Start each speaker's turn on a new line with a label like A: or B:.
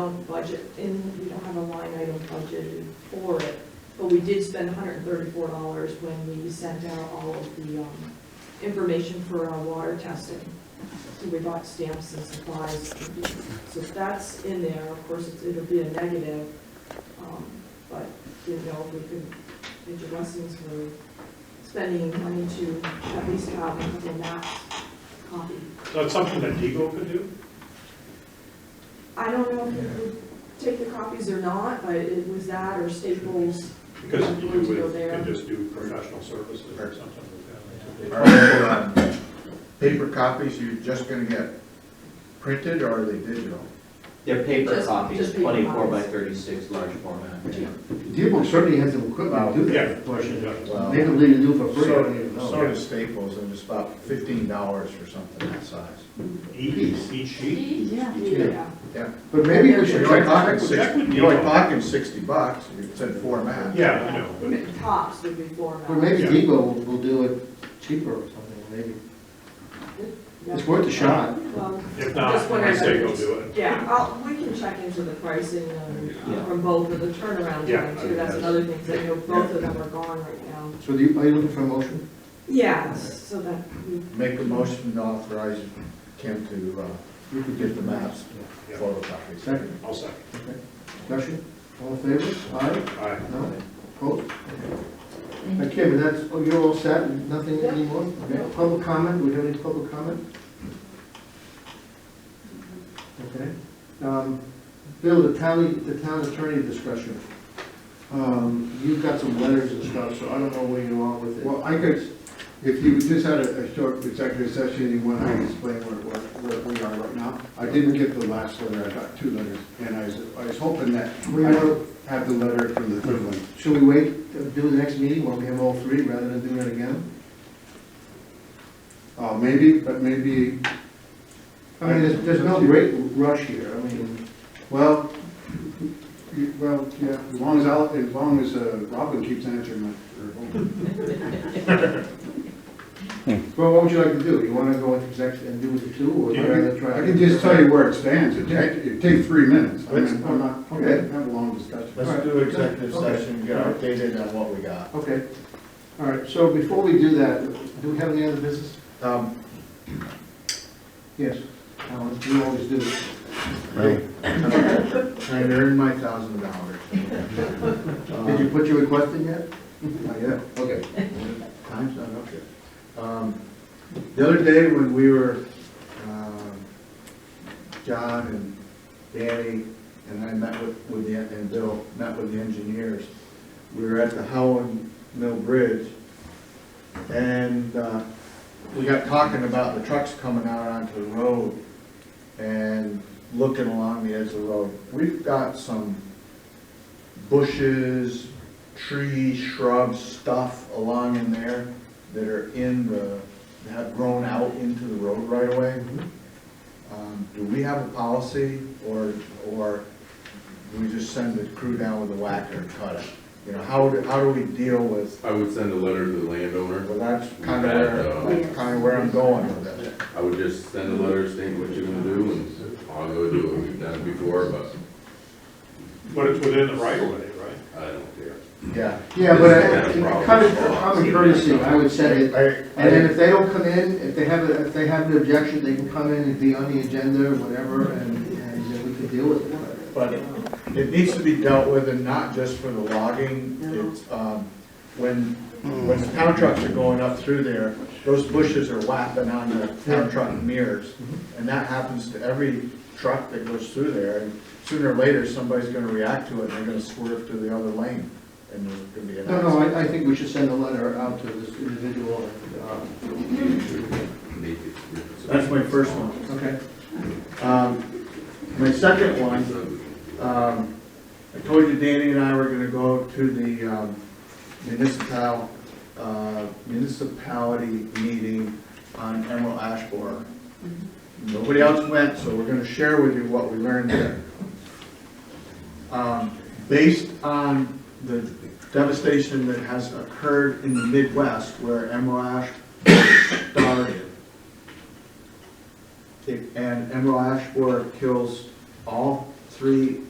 A: um, budget in, we don't have a line item budgeted for it, but we did spend hundred and thirty-four dollars when we sent out all of the, um, information for our water testing. So we bought stamps and supplies, so that's in there, of course, it's- it'll be a negative, um, but didn't know if we could, major lessons were spending money to at least have a couple maps copied.
B: So it's something that Diego could do?
A: I don't know if you would take the copies or not, but it was that or Staples.
B: Because you
A: Would you go
B: would,
A: there?
B: could just do professional services or something like that.
C: Are they, uh, paper copies you're just gonna get printed, or are they digital?
D: They're paper
A: Just- just
D: copies,
A: paper
D: twenty-four by
A: copies.
D: thirty-six, large format.
E: Dearborn certainly has some equipment to do
B: Yeah,
E: that, but
B: portion, yeah.
C: Well,
E: they don't really do it for free, I
C: sort
E: don't even
C: of-
E: know.
C: sort of Staples, and it's about fifteen dollars for something that size.
B: Each, each sheet?
A: Yeah.
C: Yeah.
E: But maybe we
C: You're
E: should check
C: only
E: on
C: talking
E: it.
B: Check with
C: sixty, you're only
B: Diego.
C: talking sixty bucks, it's in four maps.
B: Yeah, I know, but
A: Tops would be four
E: Or
A: maps.
E: maybe
B: Yeah.
E: Debo will, will do it cheaper or something, maybe. It's worth a shot.
A: Well,
B: if not,
A: Just
B: I say
A: wondering.
B: go do it.
A: Yeah, I'll, we can check into the pricing um,
D: Yeah.
A: from both of the turnaround
B: Yeah,
A: time
B: I
A: too.
B: mean,
A: That's
B: that's-
A: another thing, 'cause I know both of them are gone right now.
E: So do you, are you looking for a motion?
A: Yeah, so that, we-
C: Make a motion to authorize Kim to, uh, you could get the maps,
B: Yeah.
C: photocopies.
E: Second,
B: I'll second.
E: discussion, all in favor? Aye,
B: Aye.
E: no, opposed? Uh, Kim, that's, oh, you're all set, nothing
A: Yeah.
E: anymore?
A: No.
E: Okay, public comment, we have any public comment? Okay. Um, Bill, the town, the town attorney discussion. Um, you've got some letters and stuff, so I don't know where you are with it.
F: Well, I could, if you just had a, a short executive session, and you want, I can explain where, where, where we are right now. I didn't get the last letter, I got two letters, and I was, I was hoping that
E: We
F: we
E: will-
F: would have the letter from the third one.
E: Should we wait, uh, do the next meeting when we have all three rather than do it again?
F: Uh, maybe, but maybe,
E: I mean, there's, there's no great rush here, I mean,
F: well, you- well, yeah, as long as I'll, as long as, uh, Robin keeps answering my, or,
E: well, what would you like to do? You wanna go into exec and do the two, or would you rather try?
F: I can just tell you where it stands, it take, it take three minutes. I mean, I'm not, I'm
E: Okay.
F: not- have a long discussion.
C: Let's do executive
E: Okay.
C: session, get updated on what we got.
E: Okay, all right, so before we do that, do we have any other business?
C: Um,
E: Yes, Alan, we always do.
C: Right. I earned my thousand dollars.
E: Did
C: Um,
E: you put your request in yet? Oh,
C: Yeah, okay. Time's not up yet. Um, The other day when we were, um, John and Danny, and I met with, with the, and Bill, met with the engineers, we were at the Howland Mill Bridge, and uh, we got talking about the trucks coming out onto the road and looking along the edge of the road. We've got some bushes, trees, shrubs, stuff along in there that are in the, that have grown out into the road right away.
G: Mm-hmm.
C: Um, Do we have a policy, or, or do we just send the crew down with a whacker and cut it? You know, how, do- how do we deal with,
G: I would send a letter to the landowner.
C: well, that's kind of where, that's kind of where I'm going with it.
G: I would just send a letter stating what you're gonna do, and I'll go do it. We've done it before, but
B: But it's within the right of way, right?
G: I don't care.
C: Yeah.
E: Yeah, but I- kind of common courtesy, I would say,
C: I- I-
E: And then if they don't come in, if they have, a- if they have an objection, they can come in and be on the agenda or whatever, and, and then we could deal with it.
C: But it needs to be dealt with and not just for the logging. It's, um, when, when the town trucks are going up through there, those bushes are whapping on the town truck mirrors.
E: Mm-hmm.
C: And that happens to every truck that goes through there. And Sooner or later, somebody's gonna react to it and they're gonna swerve to the other lane and there's gonna be an
E: No, no,
C: accident.
E: I, I think we should send a letter out to this individual, and, uh,
G: Make it-
C: That's my first one.
E: okay.
C: Um, my second one, um, I told you Danny and I were gonna go to the, um, municipal, uh, municipality meeting on Emerald Ash Borer. Nobody else went, so we're gonna share with you what we learned there. Um, based on the devastation that has occurred in the Midwest where Emerald Ash started, it- and emerald ash borer kills all three